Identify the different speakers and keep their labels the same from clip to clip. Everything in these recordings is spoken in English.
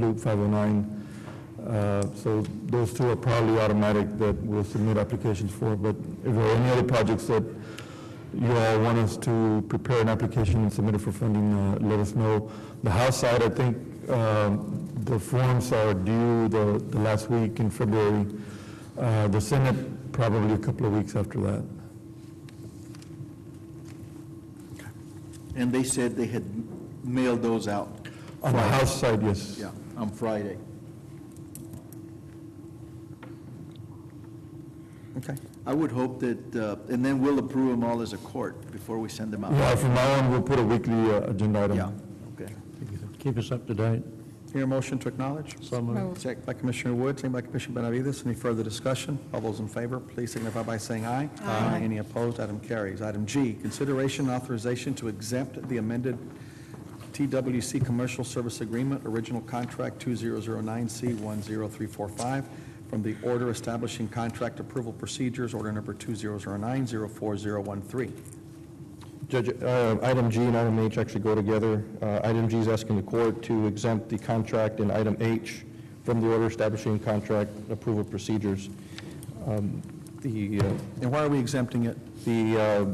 Speaker 1: Loop 509. Uh, So those two are probably automatic that we'll submit applications for, but if there are any other projects that you all want us to prepare an application and submit it for funding, uh, let us know. The House side, I think um, the forms are due the the last week in February. Uh, The Senate, probably a couple of weeks after that.
Speaker 2: And they said they had mailed those out,
Speaker 1: On the House side, yes.
Speaker 2: yeah, on Friday.
Speaker 3: Okay.
Speaker 2: I would hope that, uh, and then we'll approve them all as a court before we send them out.
Speaker 1: Yeah, from now on, we'll put a weekly uh, agenda item.
Speaker 2: Yeah, okay.
Speaker 4: Keep us up to date.
Speaker 3: Hear a motion to acknowledge?
Speaker 4: So moved.
Speaker 3: Second by Commissioner Wood, second by Commissioner Benavides. Any further discussion? All those in favor, please signify by saying aye. Aye. Any opposed, item carries. Item G, consideration and authorization to exempt the amended TWC Commercial Service Agreement, Original Contract 2009C10345, from the order establishing contract approval procedures, order number 2009-04013.
Speaker 5: Judge, uh, item G and item H actually go together. Uh, Item G is asking the court to exempt the contract in item H from the order establishing contract approval procedures. Um, The uh,
Speaker 3: And why are we exempting it?
Speaker 5: the uh,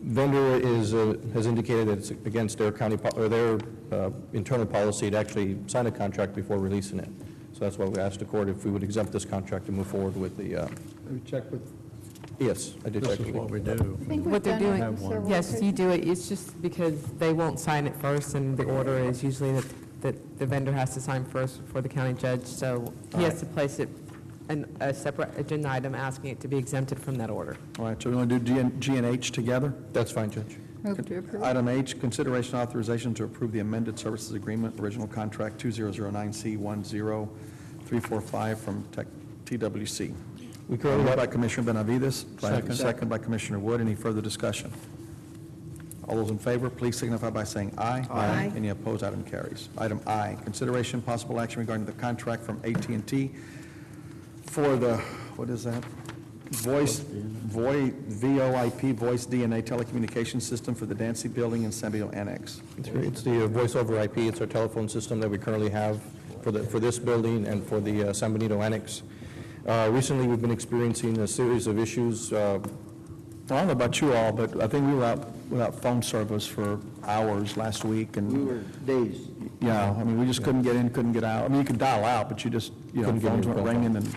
Speaker 5: vendor is, uh, has indicated that it's against their county, po- or their uh, internal policy to actually sign a contract before releasing it. So that's why we asked the court if we would exempt this contract and move forward with the, uh,
Speaker 3: Let me check with
Speaker 5: yes, I did
Speaker 4: This
Speaker 5: check.
Speaker 4: is what we do.
Speaker 6: what they're doing.
Speaker 7: several
Speaker 6: Yes, you do it, it's just because they won't sign it first, and the order is usually that, that the vendor has to sign first before the county judge, so he has to place it, an, a separate agenda item asking it to be exempted from that order.
Speaker 3: All right, so we want to do G and- G and H together?
Speaker 5: That's fine, Judge.
Speaker 7: Move to approve.
Speaker 3: Item H, consideration authorization to approve the amended services agreement, original contract 2009C10345 from Tech- TWC.
Speaker 5: We
Speaker 3: Moved
Speaker 5: currently
Speaker 3: by Commissioner Benavides. by-
Speaker 4: Second.
Speaker 3: Second by Commissioner Wood. Any further discussion? All those in favor, please signify by saying aye.
Speaker 7: Aye.
Speaker 3: Any opposed, item carries. Item I, consideration possible action regarding the contract from at and t for the, what is that? Voice, VoIP, VoIP, Voice DNA Telecommunications System for the Dancy Building and Sanbio Annex.
Speaker 5: It's great. It's the uh, voice over IP, it's our telephone system that we currently have for the, for this building and for the uh, San Benito Annex. Uh, Recently, we've been experiencing a series of issues, uh,
Speaker 3: I don't know about you all, but I think we were out without phone service for hours last week, and...
Speaker 2: We were days.
Speaker 3: Yeah, I mean, we just couldn't get in, couldn't get out. I mean, you could dial out, but you just, you know,
Speaker 5: Couldn't get
Speaker 3: phones
Speaker 5: any
Speaker 3: weren't
Speaker 5: phone
Speaker 3: ringing and,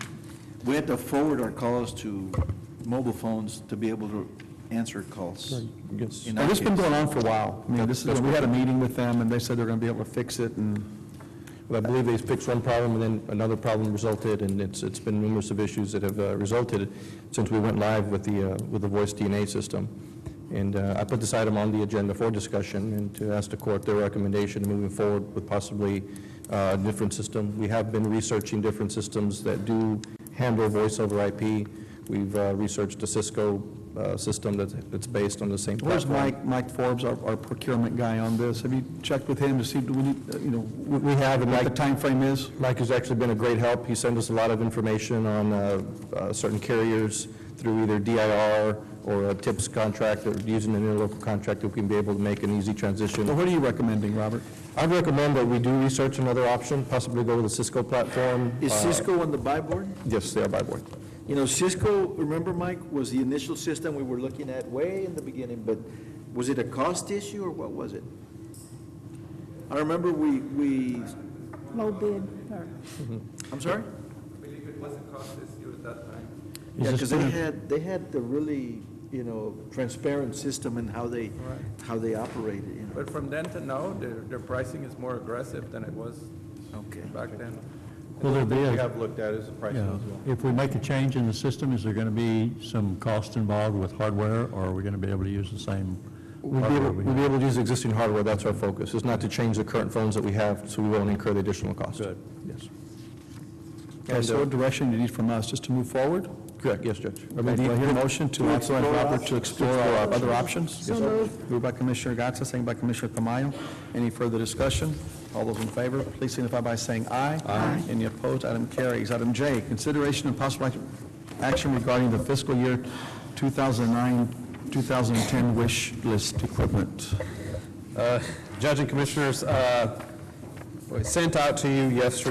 Speaker 2: We had to forward our calls to mobile phones to be able to answer calls.
Speaker 5: yes.
Speaker 2: In our
Speaker 3: and this has been
Speaker 2: case.
Speaker 3: going on for a while. I mean, this is, we had a meeting with them, and they said they're going to be able to fix it, and,
Speaker 5: But I believe they fixed one problem, and then another problem resulted, and it's, it's been numerous of issues that have uh, resulted since we went live with the, uh, with the voice DNA system. And uh, I put this item on the agenda for discussion and to ask the court their recommendation moving forward with possibly uh, a different system. We have been researching different systems that do handle voice over IP. We've uh, researched a Cisco uh, system that's, that's based on the same
Speaker 3: where's
Speaker 5: platform.
Speaker 3: Mike, Mike Forbes, our our procurement guy on this? Have you checked with him to see, do we need, uh, you know,
Speaker 5: We- We have, and
Speaker 3: what
Speaker 5: Mike...
Speaker 3: the time frame is?
Speaker 5: Mike has actually been a great help. He sent us a lot of information on uh, uh, certain carriers through either DIR or a TIPS contract, or using an interlocal contract that we can be able to make an easy
Speaker 3: Well,
Speaker 5: transition.
Speaker 3: what are you recommending, Robert?
Speaker 5: I recommend that we do research another option, possibly go with a Cisco platform.
Speaker 2: Is
Speaker 5: Uh,
Speaker 2: Cisco on the buy board?
Speaker 5: Yes, they are by board.
Speaker 2: You know, Cisco, remember, Mike, was the initial system we were looking at way in the beginning, but was it a cost issue or what was it? I remember we, we,
Speaker 7: Low bid, or
Speaker 2: I'm sorry?
Speaker 8: believe it was a cost issue at that time.
Speaker 2: Yeah, because they had, they had the really, you know, transparent system and how they, how they operated, you know.
Speaker 8: But from then to now, their, their pricing is more aggressive than it was
Speaker 2: Okay.
Speaker 8: back then.
Speaker 4: Will there be, a-
Speaker 5: have looked at is the price
Speaker 4: yeah, if we make a change in the system, is there going to be some cost involved with hardware, or are we going to be able to use the same
Speaker 5: We'll be
Speaker 4: hardware
Speaker 5: able,
Speaker 4: we
Speaker 5: we'll
Speaker 4: have?
Speaker 5: be able to use existing hardware, that's our focus, is not to change the current phones that we have, so we won't incur the additional cost.
Speaker 4: Good.
Speaker 5: Yes.
Speaker 3: Okay, so what direction do you need from us, just to move forward?
Speaker 5: Correct, yes, Judge.
Speaker 3: Okay, Do I hear a motion to authorize Robert to explore our other options?
Speaker 7: So moved.
Speaker 3: Moved by Commissioner Gatsa, second by Commissioner Tamayo. Any further discussion? All those in favor, please signify by saying aye. Aye. Any opposed, item carries. Item J, consideration and possible act- action regarding the fiscal year 2009-2010 wish list equipment.
Speaker 9: Judge and Commissioners, uh,
Speaker 1: Sent out to you yesterday